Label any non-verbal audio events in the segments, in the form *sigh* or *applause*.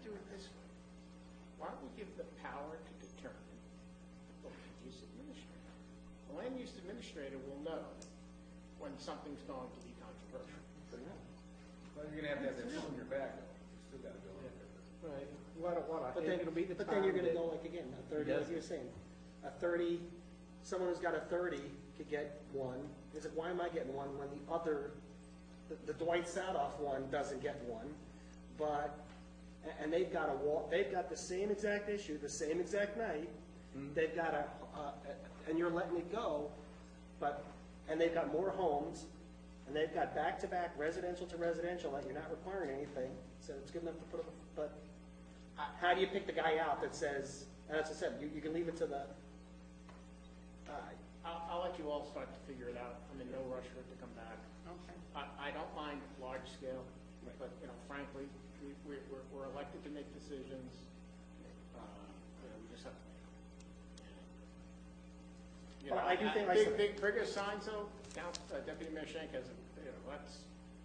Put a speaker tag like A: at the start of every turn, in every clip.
A: do it this way? Why don't we give the power to determine the land use administrator? The land use administrator will know when something's going to be controversial.
B: Well, you're gonna have to have that shoulder back, though, you still gotta go in there.
C: Right,
D: What, a- what, a-
C: but then,
D: it'll be the
C: but then you're gonna
D: time that-
C: go like again, a thirty,
D: Yes.
C: like you're saying, a thirty, someone who's got a thirty could get one, it's like, why am I getting one when the other, the- the Dwight Sadoff one doesn't get one, but, and, and they've got a wa, they've got the same exact issue, the same exact night, they've got a, uh, and you're letting it go, but, and they've got more homes, and they've got back-to-back residential to residential, that you're not requiring anything, so it's good enough to put up, a- but uh, how do you pick the guy out that says, and as I said, you, you can leave it to the, uh,
A: I'll, I'll let you all start to figure it out. I'm in no rush for it to come back.
E: Okay.
A: I, I don't mind large scale,
C: Right.
A: but, you know, frankly, we, we're, we're- we're elected to make decisions. Uh, you know, we just have to make them. You know,
C: Well, I do think I
A: Big,
C: said-
A: big, bigger signs though, Count- uh, Deputy Mayor Schenk has, a- you know, that's,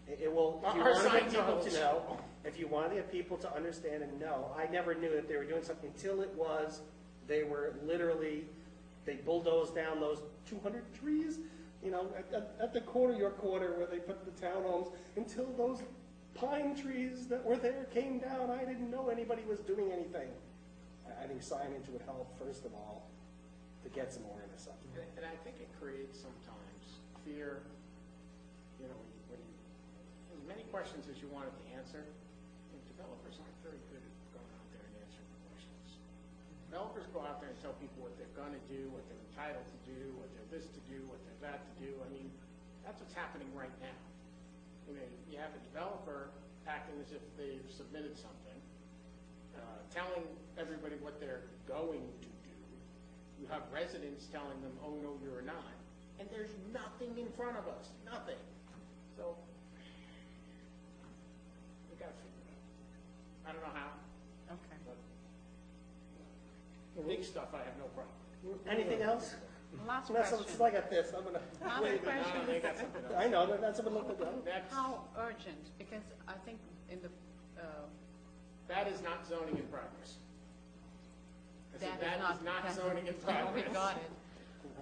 C: it, it will, if you
A: Our
C: want to get
A: signs
C: people
A: are-
C: to know, if you want to get people to understand and know, I never knew that they were doing something until it was, they were literally, they bulldozed down those two hundred trees, you know, at, at, at the corner, your corner, where they put the townhomes, until those pine trees that were there came down, I didn't know anybody was doing anything. I, I think signage would help, first of all, to get some awareness up.
A: and, and I think it creates sometimes fear, you know, when you, when you, as many questions as you wanted to answer, and developers aren't very good at going out there and answering the questions. Developers go out there and tell people what they're gonna do, what they're entitled to do, what they're this to do, what they're that to do, I mean, that's what's happening right now. I mean, you have a developer acting as if they've submitted something, uh, telling everybody what they're going to do. You have residents telling them, oh, no, you're not, and there's nothing in front of us, nothing. So, we gotta figure it out. I don't know how,
E: Okay.
A: but the big stuff I have no
E: *laughs*
A: problem.
C: Anything else?
E: Last
C: That's, it's
E: question.
C: like at this, I'm gonna,
E: Last
A: No, no, they
E: question
A: got
E: is,
A: something
C: I
E: *laughs*
A: else.
C: know, that- that's what I'm looking at.
A: That's,
E: how urgent, because I think in the, uh,
A: that is not zoning in progress. I said,
E: that is not.
A: That
E: that's-
A: is not
E: *laughs*
A: zoning in
E: We
A: progress.
E: got it.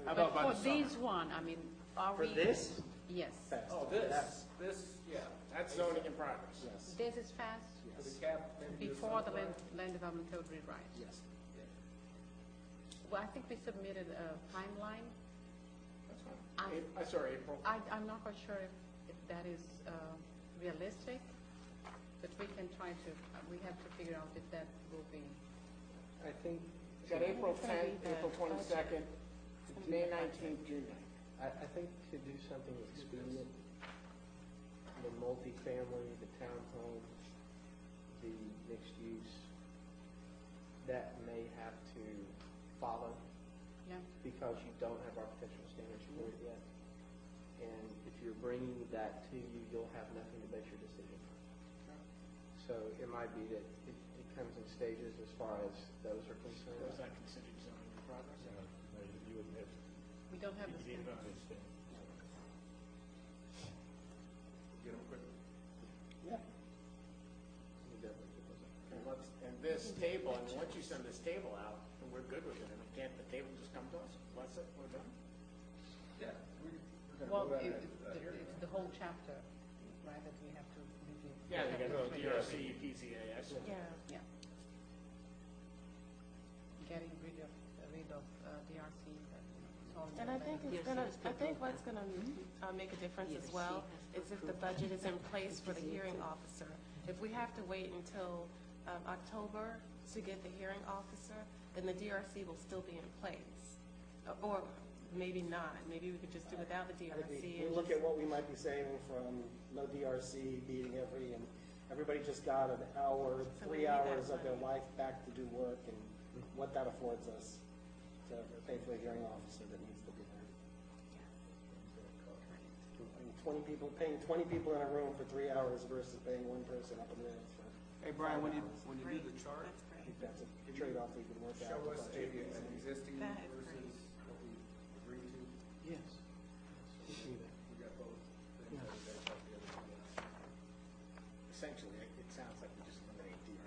B: How about by the
E: But for
B: summer?
E: these one, I mean, are
C: For
E: we?
C: this?
E: Yes.
C: Fast.
B: Oh, this, this, yeah.
A: That's zoning in progress.
C: Yes,
E: This is fast
B: For the
C: yes,
B: cap, maybe do
E: before the
B: something.
E: land, land development code rewrite.
C: yes.
E: Well, I think we submitted a timeline.
A: That's fine.
E: I-
A: April- uh, Sorry, April.
E: I, I'm not quite sure if, if that is uh, realistic, but we can try to, uh, we have to figure out if that will be.
D: I think,
A: We've got April
E: It's gonna
A: 10th,
E: be the
A: April 22nd, May 19th, June
D: I, I think to do something expedient, the multifamily, the townhomes, the mixed use, that may have to follow
E: Yeah,
D: because you don't have architectural standards for it yet. And if you're bringing that to you, you'll have nothing to base your decision on. So it might be that it, it comes in stages as far as those are
A: 9th. Was
D: concerned.
A: that considered zoning in progress?
E: we don't have the same.
B: Get them quick.
C: Yeah.
A: And let's, and this table, and once you send this table out, and we're good with it, and can't the table just come to us, bless it, we're done?
B: Yeah, we, we're
E: Well,
B: gonna move out
E: it-
B: of that
E: it- the-
B: uh, here.
E: it's the whole chapter, right, that we have to review.
A: Yeah, they got the
E: Yeah.
A: DRC, PZA, I see.
E: Yeah. Getting rid of, rid of uh, DRC, but, you know, it's all.
F: And I think it's gonna, I think what's gonna uh, make a difference as well is if the budget is in place for the hearing officer. If we have to wait until um, October to get the hearing officer, then the DRC will still be in place. Uh, Or maybe not, maybe we could just do without the
C: I think
F: DRC.
C: we, we
F: and
C: look
F: just-
C: at what we might be saving from no DRC beating every, and everybody just got an hour,
F: So we
C: three
F: need that
C: hours of their
F: money.
C: life back to do work, and
B: Mm-hmm.
C: what that affords us to pay for a hearing officer that needs to be there. And Twenty people, paying twenty people in a room for three hours versus paying one person up in the hills for,
G: Hey, Brian, when you, when you do the chart,
C: I think that's a trade-off we can work out.
B: Show us
C: with
B: a,
C: budget.
B: an existing
F: That is
B: versus